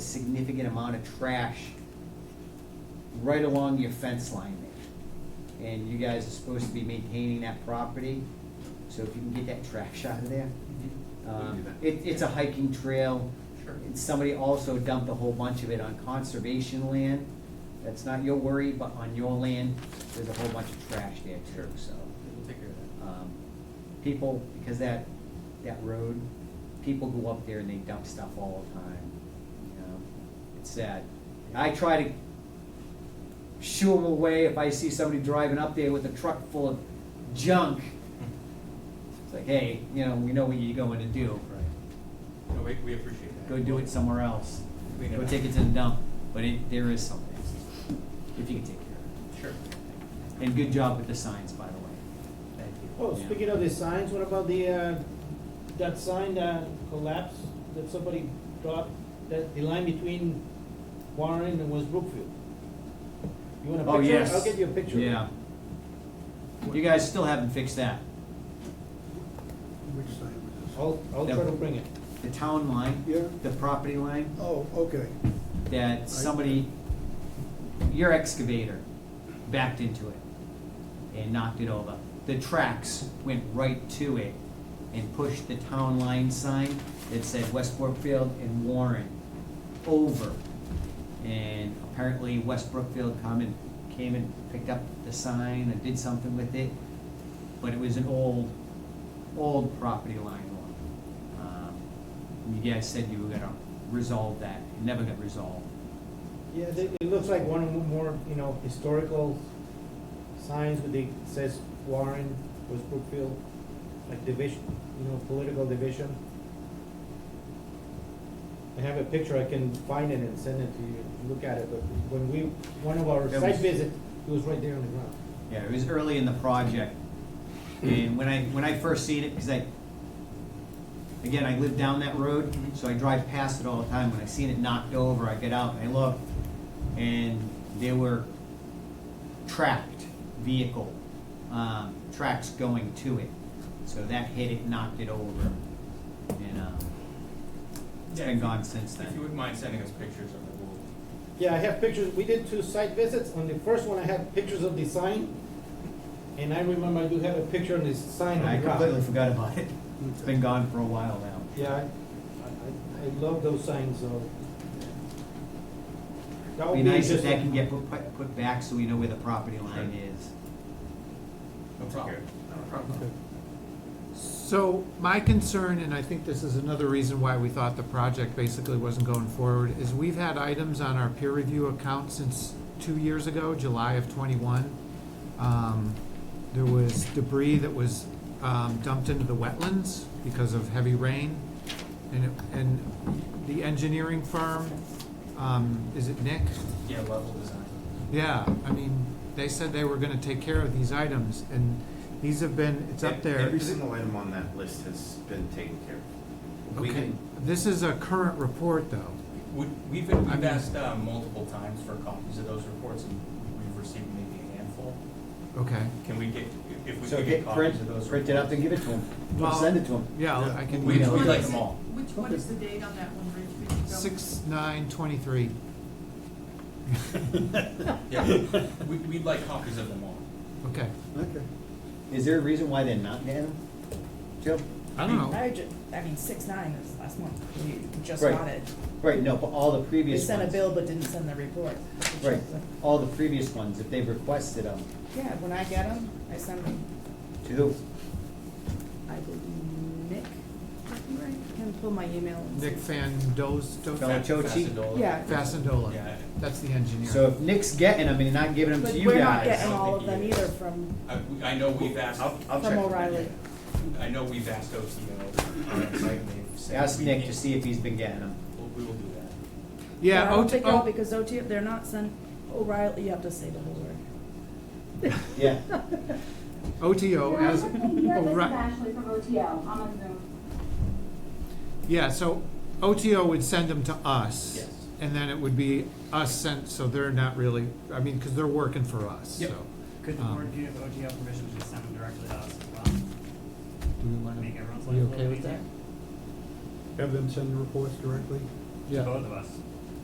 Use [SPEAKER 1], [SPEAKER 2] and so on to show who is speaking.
[SPEAKER 1] significant amount of trash right along your fence line there. And you guys are supposed to be maintaining that property, so if you can get that trash out of there. Um, It, it's a hiking trail.
[SPEAKER 2] Sure.
[SPEAKER 1] And Somebody also dumped a whole bunch of it on conservation land. That's not your worry, but on your land, there's a whole bunch of trash there too, so.
[SPEAKER 2] We'll take care of that.
[SPEAKER 1] um, People, because that, that road, people go up there and they dump stuff all the time, you know? It's sad. I try to shoo them away if I see somebody driving up there with a truck full of junk. It's like, hey, you know, we know what you're going to do.
[SPEAKER 2] Right. No, we, we appreciate that.
[SPEAKER 1] Go do it somewhere else.
[SPEAKER 2] Clean it
[SPEAKER 1] Go
[SPEAKER 2] up.
[SPEAKER 1] take it to the dump. But it, there is something, if you can take care
[SPEAKER 2] Sure.
[SPEAKER 1] of it. And good job with the signs, by the way. Thank you.
[SPEAKER 3] Oh,
[SPEAKER 1] Yeah.
[SPEAKER 3] speaking of the signs, what about the, uh, that sign that collapsed, that somebody dropped, that the line between Warren and West Brookfield? You want a picture?
[SPEAKER 1] Oh, yes.
[SPEAKER 3] I'll get you a picture.
[SPEAKER 1] Yeah. You guys still haven't fixed that.
[SPEAKER 4] Which side was
[SPEAKER 3] I'll, I'll try to bring it.
[SPEAKER 1] The town line.
[SPEAKER 4] Yeah.
[SPEAKER 1] The property line
[SPEAKER 4] this? Oh, okay.
[SPEAKER 1] that somebody, your excavator backed into it and knocked it over. The tracks went right to it and pushed the town line sign that said Westbrook Field and Warren over. And apparently Westbrook Field come and, came and picked up the sign and did something with it. But it was an old, old property line one. Um, You guys said you were gonna resolve that, It never got resolved.
[SPEAKER 3] Yeah, it, it looks like one of the more, you know, historical signs with the, says Warren, West Brookfield, like division, you know, political division. I have a picture, I can find it and send it to you, look at it, but when we, one of our
[SPEAKER 1] That
[SPEAKER 3] site
[SPEAKER 1] was-
[SPEAKER 3] visits, it was right there on the ground.
[SPEAKER 1] Yeah, it was early in the project, and when I, when I first seen it, because I, again, I live down that road,
[SPEAKER 2] Mm-hmm.
[SPEAKER 1] so I drive past it all the time, when I seen it knocked over, I get out and I look, and there were tracked vehicle, um, tracks going to it, so that hit it, knocked it over, and, um, it's
[SPEAKER 2] Yeah,
[SPEAKER 1] been
[SPEAKER 2] if you-
[SPEAKER 1] gone since
[SPEAKER 2] If you
[SPEAKER 1] then.
[SPEAKER 2] wouldn't mind sending us pictures of it, we'll,
[SPEAKER 3] Yeah, I have pictures, we did two site visits, on the first one I had pictures of the sign, and I remember I do have a picture on this sign on
[SPEAKER 1] I
[SPEAKER 3] the ground.
[SPEAKER 1] completely forgot about it, it's been gone for a while now.
[SPEAKER 3] Yeah, I, I, I love those signs, so. That would
[SPEAKER 1] Be nice if
[SPEAKER 3] just-
[SPEAKER 1] that can get put, put- put back so we know where the property line is.
[SPEAKER 2] we'll take care of it. No problem.
[SPEAKER 5] So my concern, and I think this is another reason why we thought the project basically wasn't going forward, is we've had items on our peer review account since two years ago, July of twenty-one. Um, There was debris that was um, dumped into the wetlands because of heavy rain. And, it- and the engineering firm, um, is it Nick?
[SPEAKER 2] Yeah, level design.
[SPEAKER 5] Yeah, I mean, they said they were gonna take care of these items, and these have been, it's up there.
[SPEAKER 6] E-, Every single item on that list has been taken care of. We
[SPEAKER 5] Okay,
[SPEAKER 6] can,
[SPEAKER 5] this is a current report, though.
[SPEAKER 2] We, we've, been-
[SPEAKER 5] I
[SPEAKER 2] we've
[SPEAKER 5] mean-
[SPEAKER 2] asked, uh, multiple times for copies of those reports, and we've received maybe a handful.
[SPEAKER 5] Okay,
[SPEAKER 2] Can we get, if we
[SPEAKER 1] So
[SPEAKER 2] could
[SPEAKER 1] get
[SPEAKER 2] get copies
[SPEAKER 1] print,
[SPEAKER 2] of those reports?
[SPEAKER 1] print it up and give it to him,
[SPEAKER 5] Well,
[SPEAKER 1] send it to him.
[SPEAKER 5] yeah, I'll- I can
[SPEAKER 2] We-
[SPEAKER 5] email
[SPEAKER 2] we
[SPEAKER 5] it.
[SPEAKER 2] like
[SPEAKER 7] is
[SPEAKER 2] them
[SPEAKER 7] it-
[SPEAKER 2] all.
[SPEAKER 7] Which, what is the date on that one, Rich? We can go-
[SPEAKER 5] Six, nine, twenty-three.
[SPEAKER 2] Yeah, we, we'd like copies of them all.
[SPEAKER 5] Okay,
[SPEAKER 4] Okay.
[SPEAKER 1] Is there a reason why they're not getting them? Joe?
[SPEAKER 5] I don't know.
[SPEAKER 8] I ju- I mean, six nine is last month, you just
[SPEAKER 1] Right.
[SPEAKER 8] got it.
[SPEAKER 1] Right, no, but all the
[SPEAKER 8] They
[SPEAKER 1] previous ones.
[SPEAKER 8] sent a bill but didn't send the report.
[SPEAKER 1] Right, all the previous ones, if they've requested them,
[SPEAKER 8] Yeah, when I get them, I send them,
[SPEAKER 1] to who?
[SPEAKER 8] I believe Nick, I can pull my email and see.
[SPEAKER 5] Nick Fandos,
[SPEAKER 1] Fel-
[SPEAKER 5] Do-
[SPEAKER 1] Chochi?
[SPEAKER 2] Fascidola.
[SPEAKER 8] Yeah.
[SPEAKER 5] Fascindola,
[SPEAKER 2] Yeah.
[SPEAKER 5] that's the engineer.
[SPEAKER 1] So if Nick's getting them and he's not giving them
[SPEAKER 8] But
[SPEAKER 1] to you
[SPEAKER 8] we're not
[SPEAKER 1] guys,
[SPEAKER 8] getting all of
[SPEAKER 2] I don't
[SPEAKER 8] them
[SPEAKER 2] think he
[SPEAKER 8] either
[SPEAKER 2] is.
[SPEAKER 8] from,
[SPEAKER 2] I, we- I know we've asked,
[SPEAKER 6] I'll, I'll check.
[SPEAKER 8] from O'Reilly.
[SPEAKER 2] I know we've asked OTO on our uh, site, and they've said.
[SPEAKER 1] ask
[SPEAKER 2] we
[SPEAKER 1] Nick
[SPEAKER 2] need-
[SPEAKER 1] to see if he's been getting them.
[SPEAKER 2] we'll- We will do that.
[SPEAKER 8] But
[SPEAKER 5] Yeah,
[SPEAKER 8] I don't
[SPEAKER 5] O-
[SPEAKER 8] think
[SPEAKER 5] O-
[SPEAKER 8] all, because OT, they're not sent, O'Reilly, you have to say the whole word.
[SPEAKER 1] Yeah,
[SPEAKER 5] OTO
[SPEAKER 9] You're
[SPEAKER 5] as, oh,
[SPEAKER 9] listening here. This is
[SPEAKER 5] O'Re-
[SPEAKER 9] Ashley from OTL. I'm on Zoom.
[SPEAKER 5] yeah, so OTO would send them to us.
[SPEAKER 2] Yes.
[SPEAKER 5] And then it would be us sent, so they're not really, I mean, because they're working for us,
[SPEAKER 2] Yep.
[SPEAKER 5] so.
[SPEAKER 10] Could the
[SPEAKER 5] Um,
[SPEAKER 10] board give OTL permission to send them directly to us as well?
[SPEAKER 5] Do we want
[SPEAKER 10] Make everyone's
[SPEAKER 5] to,
[SPEAKER 10] life a
[SPEAKER 5] you
[SPEAKER 10] little
[SPEAKER 5] okay with
[SPEAKER 10] easier?
[SPEAKER 5] that?
[SPEAKER 4] Have them send the reports directly?
[SPEAKER 5] Yeah.
[SPEAKER 10] Both of us.